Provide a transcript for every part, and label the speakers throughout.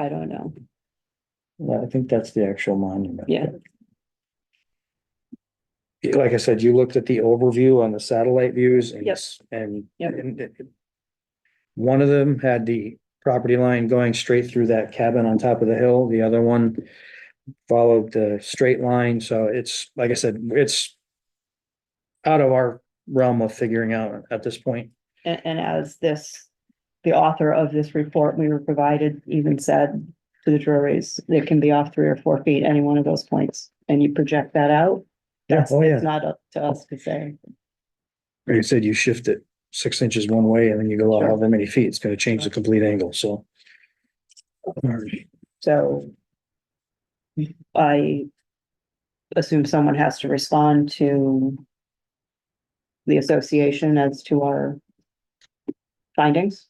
Speaker 1: I don't know.
Speaker 2: Yeah, I think that's the actual monument.
Speaker 1: Yeah.
Speaker 2: Like I said, you looked at the overview on the satellite views and.
Speaker 1: Yep.
Speaker 2: And.
Speaker 1: Yep.
Speaker 2: and it- One of them had the property line going straight through that cabin on top of the hill, the other one followed the straight line, so it's, like I said, it's out of our realm of figuring out at this point.
Speaker 1: And, and as this, the author of this report we were provided even said to the juries, it can be off three or four feet, any one of those points, and you project that out. That's,
Speaker 2: Oh,
Speaker 1: it's not up to us to say.
Speaker 2: Like I said, you shift it six inches one way and then you go out
Speaker 1: Sure.
Speaker 2: however many feet, it's gonna change the complete angle, so. Alright.
Speaker 1: So I assume someone has to respond to the association as to our findings.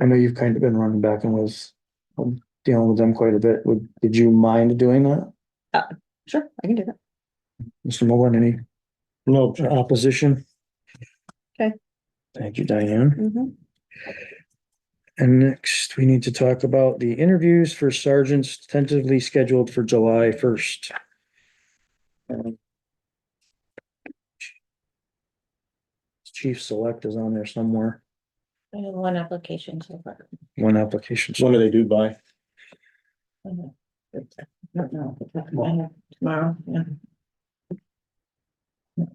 Speaker 2: I know you've kind of been running back and was um, dealing with them quite a bit. Would, did you mind doing that?
Speaker 1: Sure, I can do that.
Speaker 2: Mr. Mullen, any? No. Opposition?
Speaker 1: Okay.
Speaker 2: Thank you, Diane.
Speaker 1: Mhm.
Speaker 2: And next, we need to talk about the interviews for sergeants tentatively scheduled for July first. Chief Select is on there somewhere,
Speaker 3: I have one application so far.
Speaker 2: one application.
Speaker 4: When are they due by?
Speaker 3: Oh, No, no, I have tomorrow, yeah.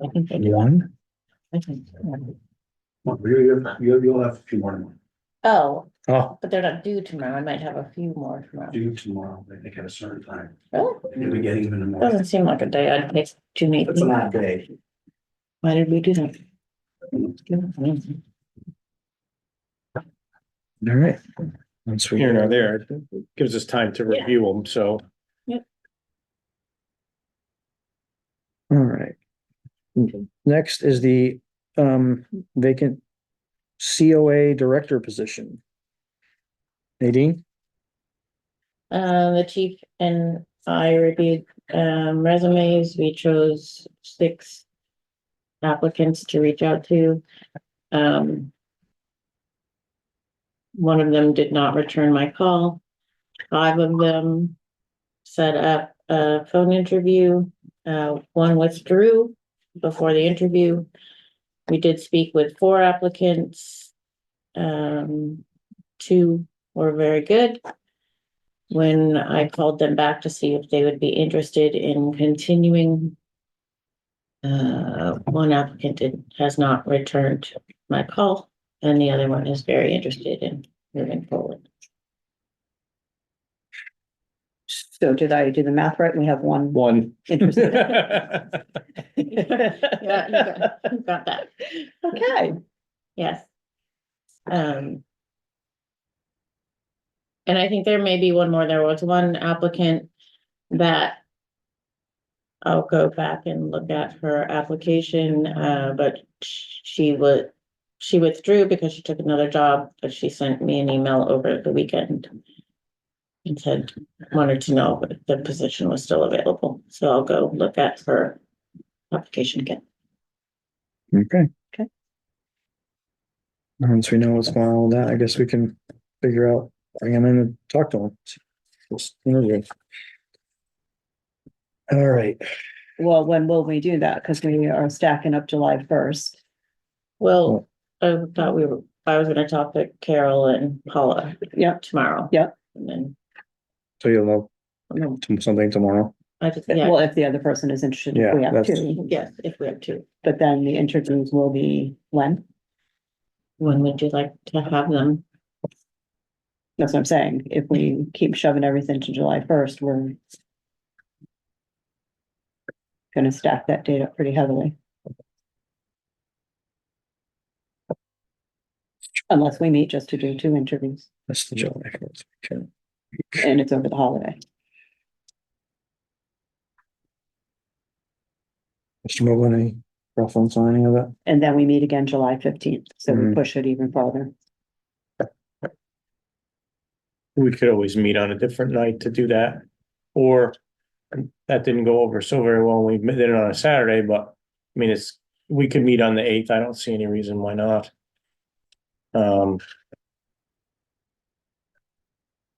Speaker 3: I think they do,
Speaker 2: One?
Speaker 3: I think.
Speaker 4: You have, you'll have a few more
Speaker 3: Oh,
Speaker 2: Oh,
Speaker 3: but they're not due tomorrow. I might have a few more tomorrow.
Speaker 4: due tomorrow, I think at a certain time,
Speaker 3: Really?
Speaker 4: in the beginning of the morning.
Speaker 3: Doesn't seem like a day. I'd take two meetings.
Speaker 4: It's not day.
Speaker 3: Why did we do that?
Speaker 2: all right. Once we-
Speaker 4: Here nor there, It gives us time to
Speaker 3: Yeah.
Speaker 4: review them, so.
Speaker 2: All right. Next is the um vacant COA director position. Nadine,
Speaker 3: Uh, the chief and I reviewed, um, resumes. We chose six applicants to reach out to. Um, one of them did not return my call. Five of them set up a phone interview. Uh, one withdrew before the interview. We did speak with four applicants. Um, two were very good when I called them back to see if they would be interested in continuing. Uh, one applicant did- has not returned my call and the other one is very interested in moving forward.
Speaker 1: So did I do the math right? We have one
Speaker 4: One.
Speaker 1: interested.
Speaker 3: Yeah, you got- you Got that,
Speaker 1: Okay,
Speaker 3: yes. Um. And I think there may be one more. There was one applicant that I'll go back and look at her application, uh, but sh- she would, she withdrew because she took another job, but she sent me an email over the weekend. And said, wanted to know if the position was still available, so I'll go look at her application again.
Speaker 2: okay.
Speaker 1: Okay.
Speaker 2: Once we know what's going on with that, I guess we can figure out, bring him in and talk to him. Just interview. All right,
Speaker 1: well, when will we do that? Because we are stacking up July first.
Speaker 3: Well, I thought we were, I was gonna talk to Carol and Paula
Speaker 1: Yep,
Speaker 3: tomorrow.
Speaker 1: Yep.
Speaker 3: And then, um,
Speaker 2: so you'll know t- something tomorrow.
Speaker 3: I just, yeah,
Speaker 1: well, if the other person is interested,
Speaker 2: Yeah,
Speaker 1: we have
Speaker 2: that's-
Speaker 1: two,
Speaker 3: yes, if we have two,
Speaker 1: but then the interviews will be when?
Speaker 3: when would you like to have them?
Speaker 1: That's what I'm saying. If we keep shoving everything to July first, we're gonna stack that date up pretty heavily. Unless we meet just to do two interviews
Speaker 2: That's the job. Okay.
Speaker 1: and it's over the holiday.
Speaker 2: Mr. Mogul, any preference on any of that?
Speaker 1: And then we meet again July fifteenth, so we
Speaker 2: Mhm.
Speaker 1: push it even farther.
Speaker 4: We could always meet on a different night to do that, or that didn't go over so very well. We did it on a Saturday, but I mean, it's, we could meet on the eighth. I don't see any reason why not. Um,